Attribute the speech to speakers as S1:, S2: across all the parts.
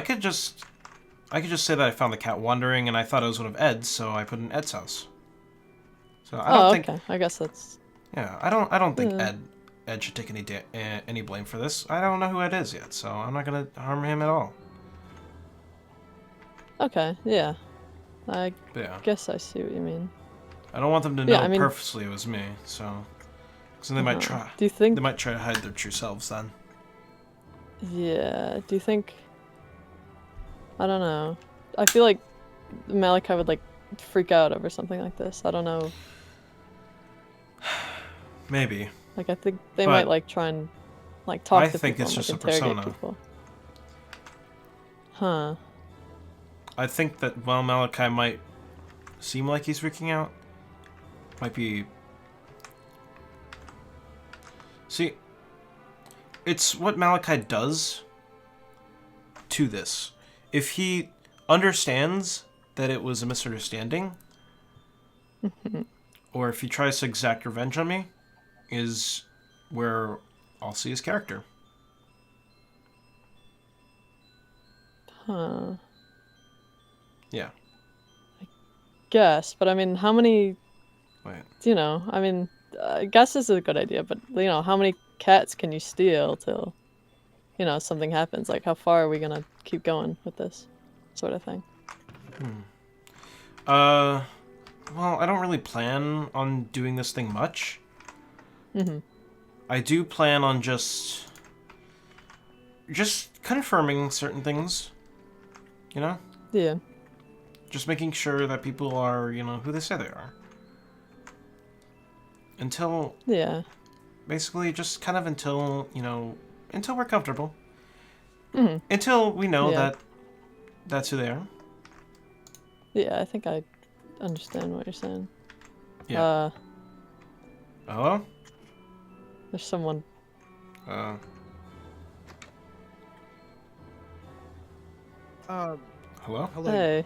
S1: I could just, I could just say that I found the cat wandering, and I thought it was one of Ed's, so I put it in Ed's house. So I don't
S2: oh,
S1: think,
S2: okay. Hmm. I guess that's.
S1: yeah, I don't, I don't think
S2: Yeah.
S1: Ed, Ed should take any da- eh, any blame for this. I don't know who Ed is yet, so I'm not gonna harm him at all.
S2: Okay, yeah. I
S1: But yeah,
S2: guess I see what you mean.
S1: I don't want them to know
S2: Yeah, I mean-
S1: purposely it was me, so, because they might
S2: Uh,
S1: try,
S2: Do you think.
S1: they might try to hide their true selves then.
S2: Yeah. Do you think? I don't know. I feel like Malachi would like freak out over something like this. I don't know.
S1: Maybe.
S2: Like I think they might
S1: But-
S2: like try and like talk
S1: I
S2: to
S1: think
S2: people
S1: it's
S2: and,
S1: just
S2: like,
S1: a
S2: interrogate
S1: persona.
S2: people. Huh.
S1: I think that while Malachi might seem like he's freaking out, might be. See, it's what Malachi does to this. If he understands that it was a misunderstanding, or if he tries to exact revenge on me, is where I'll see his character.
S2: Huh.
S1: Yeah.
S2: Guess, but I mean, how many?
S1: Wait.
S2: You know, I mean, I guess this is a good idea, but you know, how many cats can you steal till, you know, something happens? Like, how far are we gonna keep going with this sort of thing?
S1: Uh, well, I don't really plan on doing this thing much.
S2: Mhm.
S1: I do plan on just, just confirming certain things. You know,
S2: Yeah.
S1: just making sure that people are, you know, who they say they are. Until
S2: Yeah.
S1: basically, just kind of until you know, until we're comfortable.
S2: Mhm.
S1: Until we know
S2: Yeah.
S1: that that's who they are.
S2: Yeah, I think I understand what you're saying.
S1: Yeah.
S2: Uh,
S1: Hello.
S2: there's someone.
S1: Uh,
S3: Um,
S1: hello.
S3: hello.
S2: hey.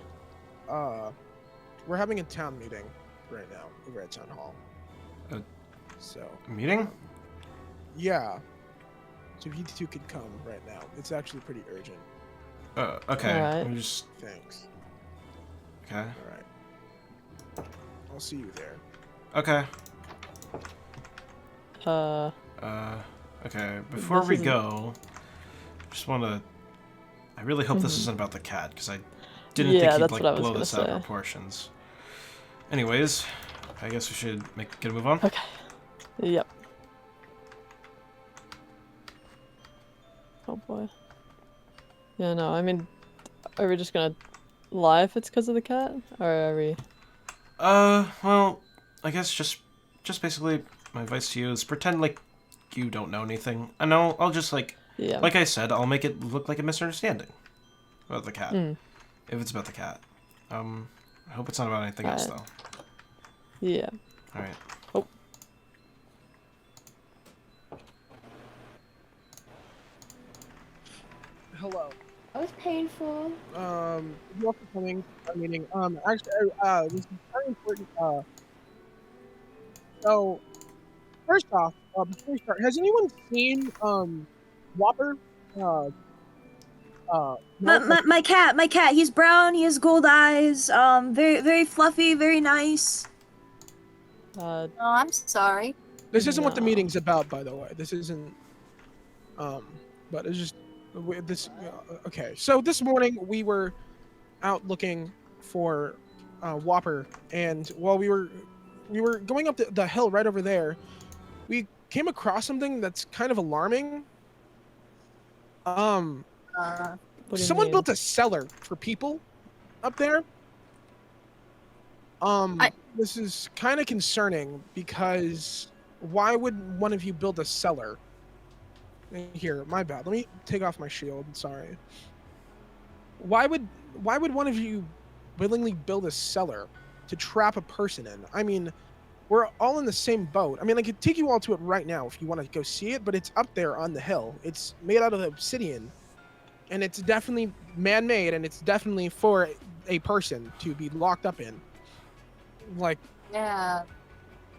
S3: Uh, we're having a town meeting right now over at town hall.
S1: Uh,
S3: so
S1: Meeting.
S3: yeah, so if you two could come right now, it's actually pretty urgent.
S1: Uh, okay.
S2: Alright.
S1: Let me just.
S3: Thanks.
S1: Okay.
S3: All right. I'll see you there.
S1: Okay.
S2: Uh,
S1: Uh, okay. Before
S2: This
S1: we
S2: isn't-
S1: go, just want to. I really hope this
S2: Mhm.
S1: isn't about the cat because I didn't
S2: Yeah,
S1: think he'd
S2: that's
S1: like
S2: what I was
S1: blow
S2: gonna
S1: this out
S2: say.
S1: of proportions. Anyways, I guess we should make get a move on.
S2: okay. Yep. Oh boy. Yeah, no, I mean, are we just gonna lie if it's because of the cat? Or are we.
S1: Uh, well, I guess just just basically my advice to you is pretend like you don't know anything. I know I'll just like
S2: Yeah.
S1: like I said, I'll make it look like a misunderstanding about the cat.
S2: Mm.
S1: If it's about the cat, um, I hope it's not about anything else
S2: Alright.
S1: though.
S2: Yeah.
S1: All right.
S2: Oh.
S3: Hello.
S4: That was painful.
S3: Um, you all for coming to our meeting. Um, actually, uh, this is very important. Uh, so, first off, uh, before we start, has anyone seen um, Whopper? Uh, uh,
S5: My, my, my cat, my cat. He's brown. He has gold eyes. Um, very very fluffy, very nice.
S2: Uh,
S4: No, Oh, I'm sorry.
S3: This isn't what the
S2: No.
S3: meeting's about, by the way. This isn't. Um, but it's just we- this. uh, Okay, so this morning we were out looking for uh, Whopper, and while we were we were going up the, the hill right over there, we came across something that's kind of alarming. Um,
S4: Uh,
S2: what do you
S3: someone
S2: mean?
S3: built a cellar for people up there. Um,
S4: I-
S3: this is kind of concerning because why would one of you build a cellar? Here, my bad. Let me take off my shield. Sorry. Why would why would one of you willingly build a cellar to trap a person in? I mean, we're all in the same boat. I mean, I could take you all to it right now if you want to go see it, but it's up there on the hill. It's made out of obsidian and it's definitely man-made and it's definitely for a person to be locked up in like
S4: yeah.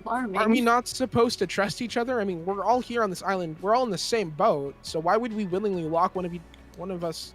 S4: Alarming.
S3: are we not supposed to trust each other i mean we're all here on this island we're all in the same boat so why would we willingly lock one of you one of us